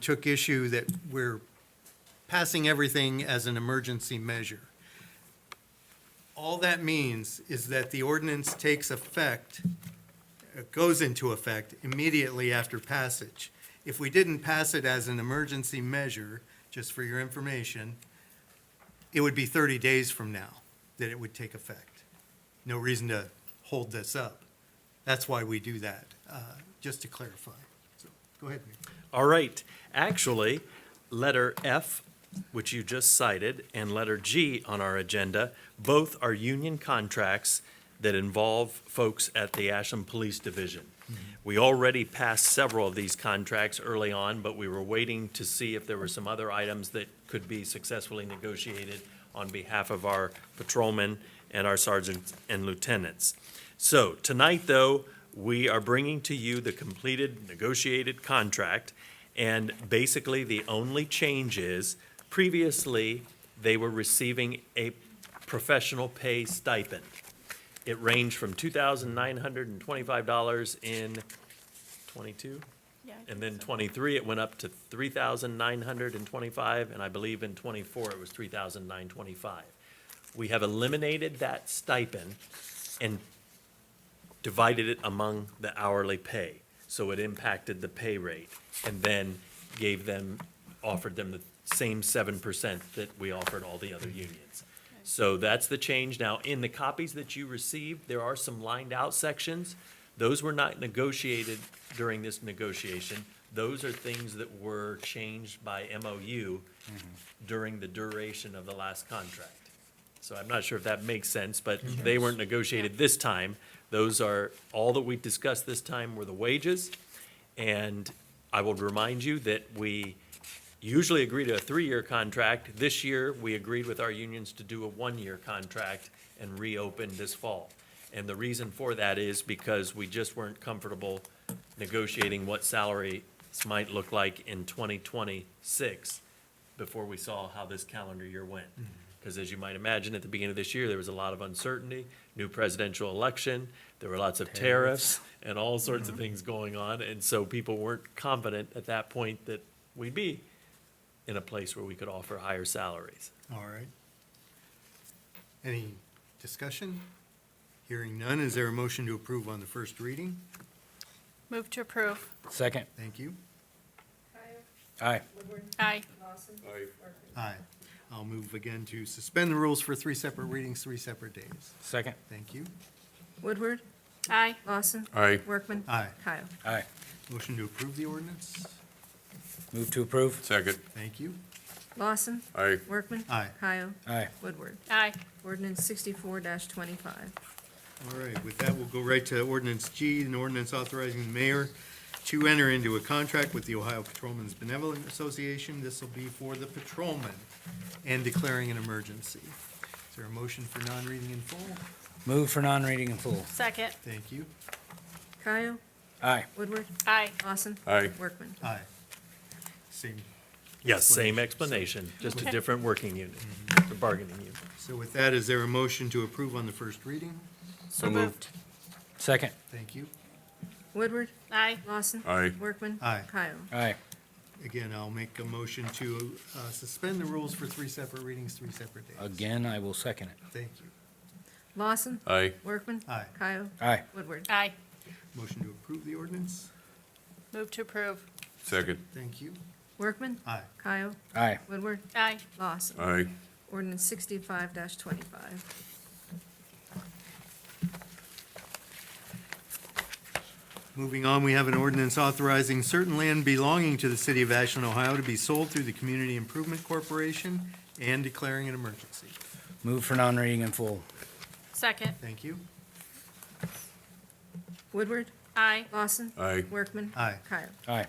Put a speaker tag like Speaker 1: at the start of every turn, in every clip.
Speaker 1: took issue that we're passing everything as an emergency measure. All that means is that the ordinance takes effect, uh, goes into effect immediately after passage. If we didn't pass it as an emergency measure, just for your information, it would be 30 days from now that it would take effect. No reason to hold this up. That's why we do that, uh, just to clarify. So, Go ahead, Mayor.
Speaker 2: All right, actually, letter F, which you just cited, and letter G on our agenda, both are union contracts that involve folks at the Ashland Police Division. We already passed several of these contracts early on, but we were waiting to see if there were some other items that could be successfully negotiated on behalf of our patrolmen and our sergeants and lieutenants. So tonight, though, we are bringing to you the completed negotiated contract. And basically, the only change is previously, they were receiving a professional pay stipend. It ranged from two thousand nine hundred and twenty-five dollars in twenty-two?
Speaker 3: Yeah, I
Speaker 2: And then twenty-three, it went up to three thousand nine hundred and twenty-five, and I believe in twenty-four, it was three thousand nine twenty-five. We have eliminated that stipend and divided it among the hourly pay. So it impacted the pay rate and then gave them, offered them the same seven percent that we offered all the other unions. So that's the change. Now, in the copies that you received, there are some lined out sections. Those were not negotiated during this negotiation. Those are things that were changed by MOU during the duration of the last contract. So I'm not sure if that makes sense, but they weren't negotiated this time. Those are, all that we discussed this time were the wages. And I will remind you that we usually agree to a three-year contract. This year, we agreed with our unions to do a one-year contract and reopen this fall. And the reason for that is because we just weren't comfortable negotiating what salaries might look like in 2026 before we saw how this calendar year went. Because as you might imagine, at the beginning of this year, there was a lot of uncertainty, new presidential election, there were lots of tariffs Mm-hmm. and all sorts of things going on. And so people weren't confident at that point that we'd be in a place where we could offer higher salaries.
Speaker 1: All right. Any discussion? Hearing none, is there a motion to approve on the first reading?
Speaker 3: Move to approve.
Speaker 4: Second.
Speaker 1: Thank you.
Speaker 4: Aye.
Speaker 3: Aye.
Speaker 1: Aye. I'll move again to suspend the rules for three separate readings, three separate days.
Speaker 4: Second.
Speaker 1: Thank you.
Speaker 5: Woodward,
Speaker 3: Aye.
Speaker 5: Lawson.
Speaker 4: Aye.
Speaker 5: Workman.
Speaker 1: Aye.
Speaker 5: Kyle.
Speaker 4: Aye.
Speaker 1: Motion to approve the ordinance?
Speaker 4: Move to approve.
Speaker 6: Second.
Speaker 1: Thank you.
Speaker 5: Lawson.
Speaker 6: Aye.
Speaker 5: Workman.
Speaker 1: Aye.
Speaker 5: Kyle.
Speaker 4: Aye.
Speaker 5: Woodward.
Speaker 3: Aye.
Speaker 5: Ordinance sixty-four twenty-five.
Speaker 1: All right, with that, we'll go right to ordinance G, an ordinance authorizing the mayor to enter into a contract with the Ohio Patrolmen's Benevolent Association. This will be for the patrolmen and declaring an emergency. Is there a motion for non-reading in full?
Speaker 4: Move for non-reading in full.
Speaker 3: Second.
Speaker 1: Thank you.
Speaker 5: Kyle.
Speaker 4: Aye.
Speaker 5: Woodward.
Speaker 3: Aye.
Speaker 5: Lawson.
Speaker 6: Aye.
Speaker 5: Workman.
Speaker 1: Aye. Same.
Speaker 2: Yes, Mm-hmm. same explanation, just a different working unit, the bargaining unit.
Speaker 1: So with that, is there a motion to approve on the first reading?
Speaker 3: So moved.
Speaker 4: Second.
Speaker 1: Thank you.
Speaker 5: Woodward.
Speaker 3: Aye.
Speaker 5: Lawson.
Speaker 6: Aye.
Speaker 5: Workman.
Speaker 1: Aye.
Speaker 5: Kyle.
Speaker 4: Aye.
Speaker 1: Again, I'll make a motion to uh, suspend the rules for three separate readings, three separate days.
Speaker 4: Again, I will second it.
Speaker 1: Thank you.
Speaker 5: Lawson.
Speaker 6: Aye.
Speaker 5: Workman.
Speaker 1: Aye.
Speaker 5: Kyle.
Speaker 4: Aye.
Speaker 5: Woodward.
Speaker 3: Aye.
Speaker 1: Motion to approve the ordinance?
Speaker 3: Move to approve.
Speaker 6: Second.
Speaker 1: Thank you.
Speaker 5: Workman.
Speaker 1: Aye.
Speaker 5: Kyle.
Speaker 4: Aye.
Speaker 5: Woodward.
Speaker 3: Aye.
Speaker 5: Lawson.
Speaker 6: Aye.
Speaker 5: Ordinance sixty-five twenty-five.
Speaker 1: Moving on, we have an ordinance authorizing certain land belonging to the city of Ashland, Ohio to be sold through the Community Improvement Corporation and declaring an emergency.
Speaker 4: Move for non-reading in full.
Speaker 3: Second.
Speaker 1: Thank you.
Speaker 5: Woodward.
Speaker 3: Aye.
Speaker 5: Lawson.
Speaker 6: Aye.
Speaker 5: Workman.
Speaker 1: Aye.
Speaker 5: Kyle.
Speaker 4: Aye.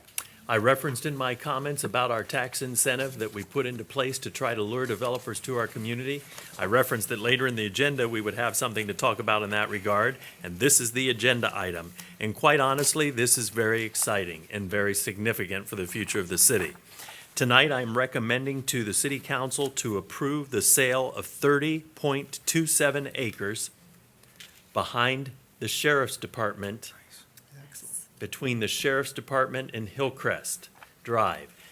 Speaker 2: I referenced in my comments about our tax incentive that we put into place to try to lure developers to our community. I referenced that later in the agenda, we would have something to talk about in that regard, and this is the agenda item. And quite honestly, this is very exciting and very significant for the future of the city. Tonight, I am recommending to the city council to approve the sale of thirty point two seven acres behind the sheriff's department
Speaker 1: Excellent.
Speaker 2: between the Sheriff's Department and Hillcrest Drive.